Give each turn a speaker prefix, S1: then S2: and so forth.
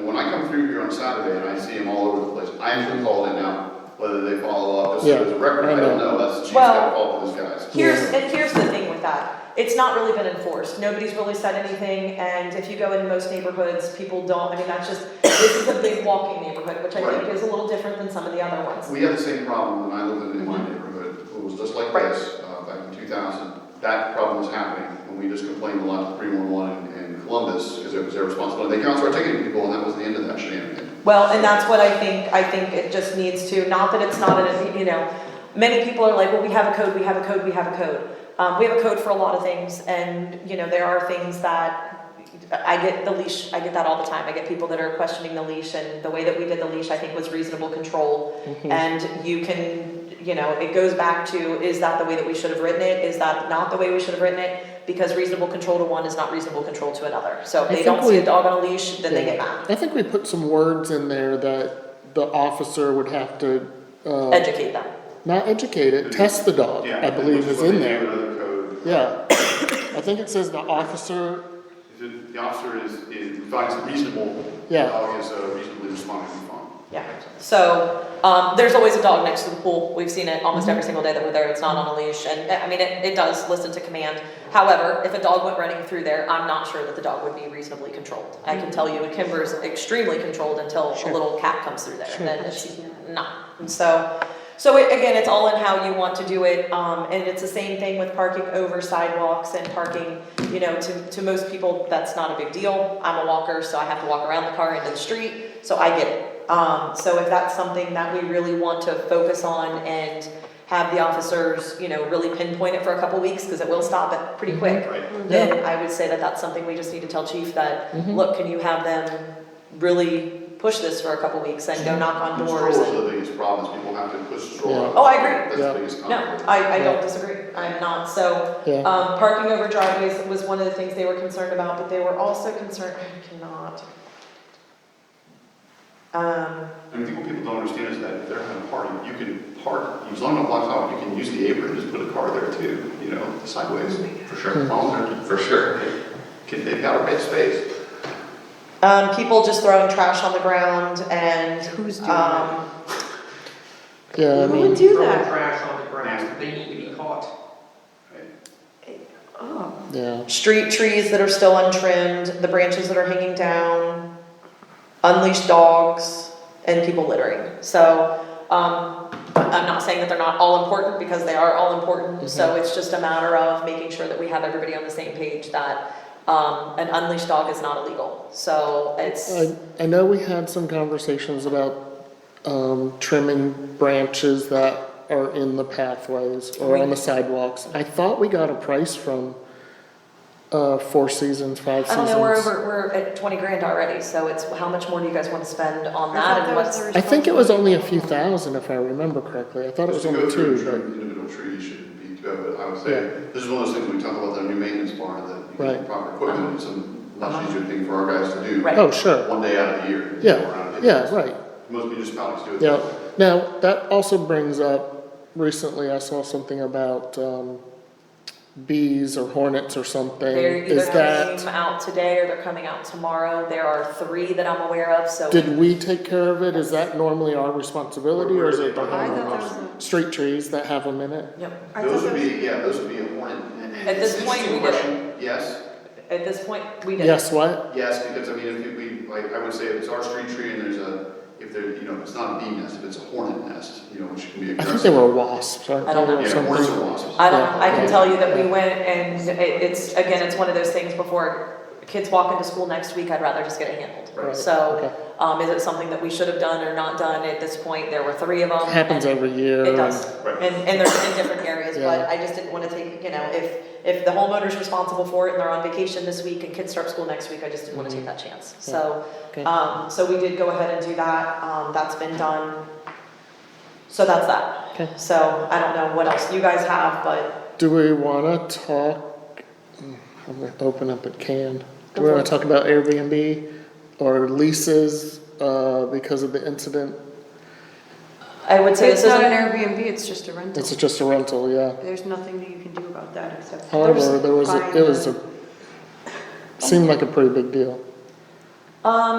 S1: preview on Saturday, and I see them all over the place. I actually called it now, whether they follow up, as soon
S2: Yeah,
S1: as a record, I
S2: I
S1: don't
S2: know.
S1: know, that's, she's got
S3: Well-
S1: to call these guys.
S3: Here's,
S2: Yeah.
S3: and here's the thing with that, it's not really been enforced, nobody's really said anything, and if you go in most neighborhoods, people don't, I mean, that's just, this is a big walking neighborhood, which I think
S1: Right.
S3: is a little different than some of the other ones.
S1: We had the same problem when I lived in my neighborhood, it was just like
S3: Right.
S1: this, uh, back in two thousand. That problem was happening, and we just complained a lot to three one one in Columbus, because it was their responsibility. They counted our ticketing people, and that was the end of that shenanigan.
S3: Well, and that's what I think, I think it just needs to, not that it's not, an you know, many people are like, well, we have a code, we have a code, we have a code. Um, we have a code for a lot of things, and, you know, there are things that, I get the leash, I get that all the time, I get people that are questioning the leash, and the way that we did the leash, I think was reasonable control.
S2: Mm-hmm.
S3: And you can, you know, it goes back to, is that the way that we should have written it, is that not the way we should have written it? Because reasonable control to one is not reasonable control to another, so if
S2: I
S3: they
S2: think
S3: don't see
S2: we-
S3: a dog on a leash, then they
S2: Yeah.
S3: get mad,
S2: I think we put some words in there that the officer would have to, uh,
S3: educate them.
S2: not educate it, test the dog,
S4: Yeah,
S2: I believe
S1: Which
S2: is
S1: what
S2: in
S1: they do
S2: there.
S1: Another code,
S2: Yeah. I think it says the officer,
S1: If it- the officer is, is, finds it reasonable, the
S2: Yeah.
S1: dog is uh, reasonably responding to the phone.
S3: Yeah, so, um, there's always a dog next to the pool, we've seen it almost
S2: Mm-hmm.
S3: every single day that we're there, it's not on a leash, and, I mean, it, it does listen to command. However, if a dog went running through there, I'm not sure that the dog would be reasonably controlled. I can tell you, Kimber's extremely controlled until a
S2: Sure.
S3: little cat comes through there,
S2: Sure.
S3: then she's not, and so. So it, again, it's all in how you want to do it, um, and it's the same thing with parking over sidewalks and parking, you know, to, to most people, that's not a big deal. I'm a walker, so I have to walk around the car into the street, so I get it. Um, so if that's something that we really want to focus on and have the officers, you know, really pinpoint it for a couple weeks, cause it will stop it pretty quick.
S1: Right.
S3: Then I would say that that's something we just need to tell chief that, look, can you have them really push this for a couple weeks and go knock on doors
S1: Strollers
S3: and.
S1: are the biggest problems, people have to push the
S2: Yeah.
S1: stroller.
S3: Oh, I agree.
S1: That's
S2: Yeah.
S1: the biggest
S3: No,
S1: conflict.
S3: I, I don't
S2: Yeah.
S3: disagree, I'm not, so,
S2: yeah,
S3: um, parking over driveways was one of the things they were concerned about, but they were also concerned, I cannot. Um,
S1: And I think what people don't understand is that if they're having a party, you can park, as long as it blocks out, you can use the apron, just put a car there too, you know, sideways, for
S2: Hmm.
S1: sure. Volunteer, For sure. Can, they've got a bit of space.
S3: um, people just throwing trash on the ground and,
S5: Who's doing that?
S3: um,
S2: yeah, I
S5: Who would
S2: mean,
S3: do
S5: Throwing
S3: that?
S5: trash on the ground, they need to be caught.
S3: Oh.
S2: yeah.
S3: Street trees that are still untrimmed, the branches that are hanging down, unleashed dogs, and people littering. So, um, I'm not saying that they're not all important because they are all important. So it's just a matter of making sure that we have everybody on the same page that, um, an unleashed dog is not illegal. So it's,
S2: I, I know we had some conversations about, um, trimming branches that are in the pathways or on the sidewalks. I thought we got a price from, uh, Four Seasons, Five
S3: I
S2: Seasons.
S3: don't know, we're over, we're at twenty grand already. So it's, how much more do you guys wanna spend on that and what's?
S2: I think it was only a few thousand, if I remember correctly. I thought it was
S1: Just to go
S2: only
S1: through
S2: two,
S1: each
S2: but,
S1: Individual tree should be, too, but I would
S2: Yeah.
S1: say, this is one of those things we talk about, the new maintenance barn, that you get
S2: Right.
S1: proper equipment, it's a much easier thing for our guys to do.
S3: Uh-huh. Right.
S2: oh, sure,
S1: One day out of the year.
S2: Yeah.
S1: around it.
S2: yeah, right,
S1: Most municipalities do it.
S2: yeah. Now, that also brings up, recently I saw something about, um, bees or hornets or something.
S3: They're either
S2: Is
S3: coming
S2: that,
S3: out today or they're coming out tomorrow. There are three that I'm aware of, so.
S2: did we take care of it? Is that normally our responsibility or is it the
S1: Where- where
S5: I
S1: are
S2: hornet?
S1: they?
S5: thought there was a,
S2: Street trees that have them in it?
S3: Yep.
S5: I
S1: Those
S5: thought
S1: would
S5: there was,
S1: be, yeah, those would be a warning.
S3: At this point, we did it.
S1: Yes,
S3: At this point, we did.
S2: Yes, what?
S1: yes, because I mean, if we, like, I would say if it's our street tree and there's a, if there, you know, it's not a bee nest, if it's a hornet nest, you know, which can be
S2: I think they
S1: aggressive.
S2: were wasps, aren't
S3: I don't
S2: they,
S3: know.
S2: or
S1: Yeah, hornets
S2: something?
S1: or wasps.
S3: I don't, I can
S2: Yeah.
S3: tell you that we went and it, it's, again, it's one of those things before kids walk into school next week, I'd rather just get it handled.
S2: Right,
S3: So,
S2: okay.
S3: um, is it something that we should have done or not done? At this point, there were three of them.
S2: Happens
S3: and-
S2: every year.
S3: um, It
S2: and-
S3: does,
S1: Right.
S3: and, and they're in different areas, but
S2: Yeah.
S3: I just didn't wanna take, you know, if, if the homeowner's responsible for it and they're on vacation this week and kids start school next week, I just didn't wanna take that chance, so.
S2: Okay.
S3: Um, so we did go ahead and do that, um, that's been done, so that's that.
S2: Okay.
S3: So I don't know what else you guys have, but
S2: Do we want to talk? mm, I'm going to open up at can. Do
S3: Go
S2: we
S3: for
S2: want to
S3: it.
S2: talk about Airbnb or leases uh, because of the incident?
S3: I would say this
S5: it's not an
S3: isn't,
S5: Airbnb, it's just a rental.
S2: It's just a rental, yeah.
S5: There's nothing that you can do about that except.
S2: However, there was a,
S5: buying
S2: it was
S5: the-
S2: a seemed like a pretty big deal.
S3: um,